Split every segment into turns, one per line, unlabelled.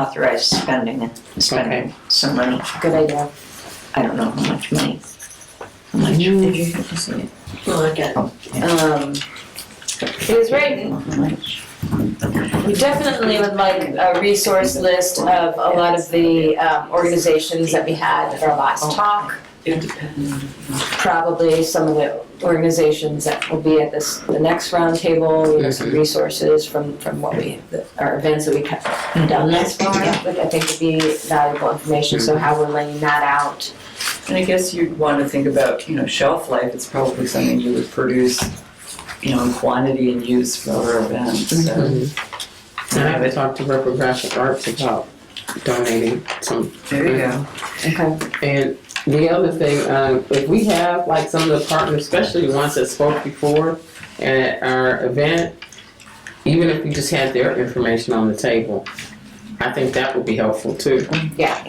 authorize spending, spending some money.
Good idea.
I don't know how much money. How much did you have to say?
Look at, um, it was right,
How much?
we definitely would like a resource list of a lot of the um, organizations that we had at our last talk. Probably some of the organizations that will be at this, the next roundtable, you know, some resources from, from what we, the- our events that we have done thus far, which I think would be valuable information, so how we're laying that out.
And I guess you'd want to think about, you know, shelf life, it's probably something you would produce, you know, in quantity and use for other events, so.
Mhm.
Mm-hmm.
And I would talk to Purple Graphic Arts about donating some.
There you go.
Okay.
And the other thing, um, if we have like some of the partners, especially the ones that spoke before at our event, even if we just had their information on the table, I think that would be helpful too.
Yeah.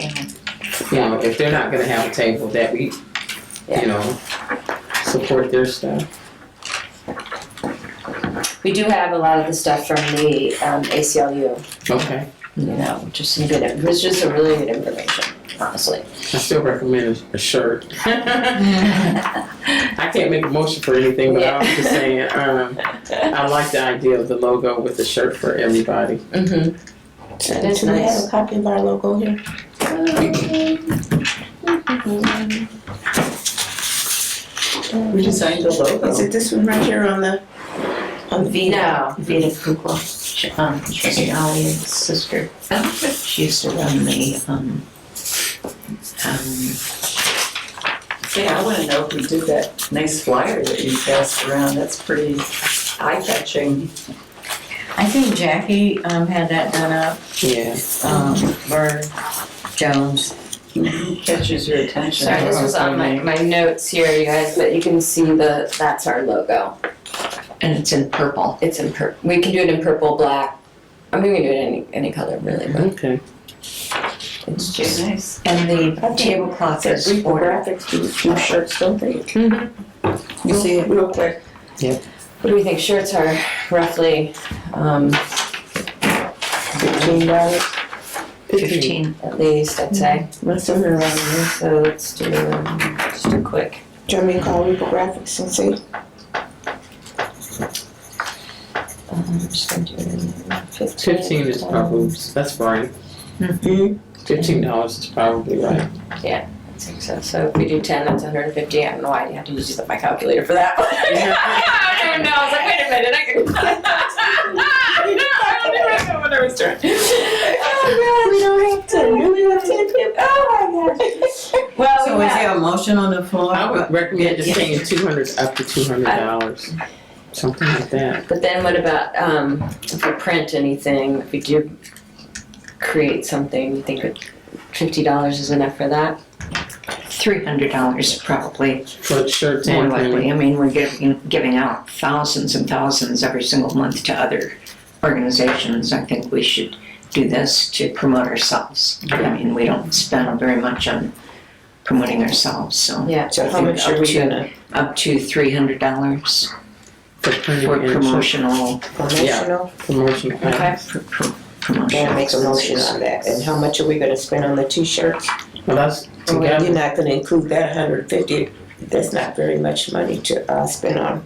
You know, if they're not gonna have a table, that we,
Yeah.
you know, support their stuff.
We do have a lot of the stuff from the um, ACLU,
Okay,
you know, which is some good, it was just a really good information, honestly.
I still recommend a- a shirt. I can't make a motion for anything, but I was just saying, um, I like the idea of the logo with the shirt for everybody.
Mm-hmm. That is
Do we have
nice.
a copy of our logo here?
We designed the
Is
logo.
it this one right here on the, on the?
No,
Um, Vita Kukla, she- um, Tracy Ollie's sister. She used to run the, um, um,
Yeah, I want to know who did that nice flyer that you passed around, that's pretty eye-catching.
I think Jackie um, had that done up,
Yeah.
um, or Jones.
Catches your attention.
sorry, this was on my, my notes here, you guys, but you can see the, that's our logo.
and it's in purple.
It's in pur, we can do it in purple, black, I mean, we can do it any, any color really, but
Okay.
it's
It's
just,
nice.
And the
think
tablecloth
Says
is
Reaper
ordered.
Graphics, do do shirts, don't they? You see it real quick.
what do we think, shirts are roughly, um,
Fifteen dollars,
Fifteen.
at least, I'd say,
must have been around here.
so let's do, um, just a quick.
Do you want me to call Reaper Graphics and see?
um, I'm just gonna do it in fifteen.
Fifteen is probably, that's right.
Mm-hmm.
Mhm.
Fifteen dollars is probably right.
I think So, so if we do ten, that's hundred and fifty, I don't know why I had to use my calculator for that one. I don't even know, I was like, wait a minute, I can. I don't even know what I was doing. Oh,
We don't have to, we don't have to.
God. Oh, my gosh. Well,
So
we
is
have,
there a motion on the floor?
I would recommend just saying two hundred, up to two hundred dollars, something like that.
but then what about, um, if we print anything, if we do create something, you think fifty dollars is enough for that?
Three hundred dollars probably,
For shirts
more
and
likely.
things.
I mean, we're giving, giving out thousands and thousands every single month to other organizations. I think we should do this to promote ourselves. I mean, we don't spend very much on promoting ourselves, so
Yeah.
So how much are we gonna,
up to three hundred dollars
For
for
printing and shirt
promotional,
promotional?
promotion.
Okay.
for pro- promotional.
Yeah, make a motion on that, and how much are we gonna spend on the t-shirts?
Well, that's
You're
together.
not gonna include that hundred fifty, that's not very much money to, uh, spend on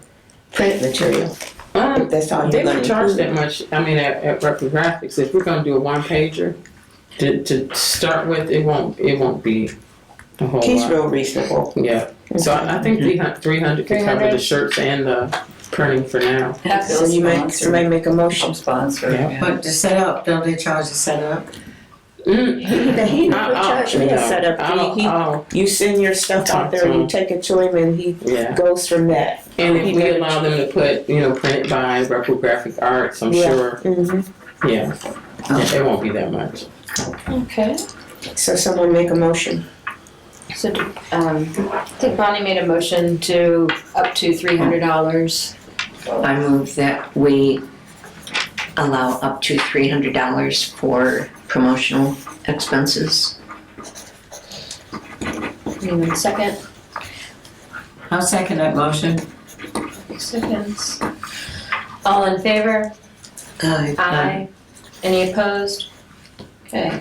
print material, if
Um,
that's all
They
you're gonna
don't charge that
include.
much, I mean, at, at Record Graphics, if we're gonna do a one pager, to, to start with, it won't, it won't be a whole
He's
lot.
real reasonable.
Yeah, so I I think three hundred could cover the shirts and the printing for now.
Have
So
Bill's
you make,
sponsor.
somebody make a motion.
Some sponsor,
Yeah.
yeah.
But to set up, don't they charge to set up?
Mm,
He, he never
uh-uh,
charged me to
no.
set
I'll-
up, he,
I'll-
he, you send your stuff out there, you take it to him and he
Yeah,
goes from that.
and if
He
we
never
allow them to put, you know, print by Record Graphic Arts, I'm
Yeah. Oh.
sure,
Mm-hmm.
yeah, Yeah, it won't be that much.
Okay.
So someone make a motion.
So, um, I think Bonnie made a motion to up to three hundred dollars.
I move that we allow up to three hundred dollars for promotional expenses.
Anyone second?
I'll second that motion.
Seconds.
Uh,
All in favor? Aye. Any opposed? Okay.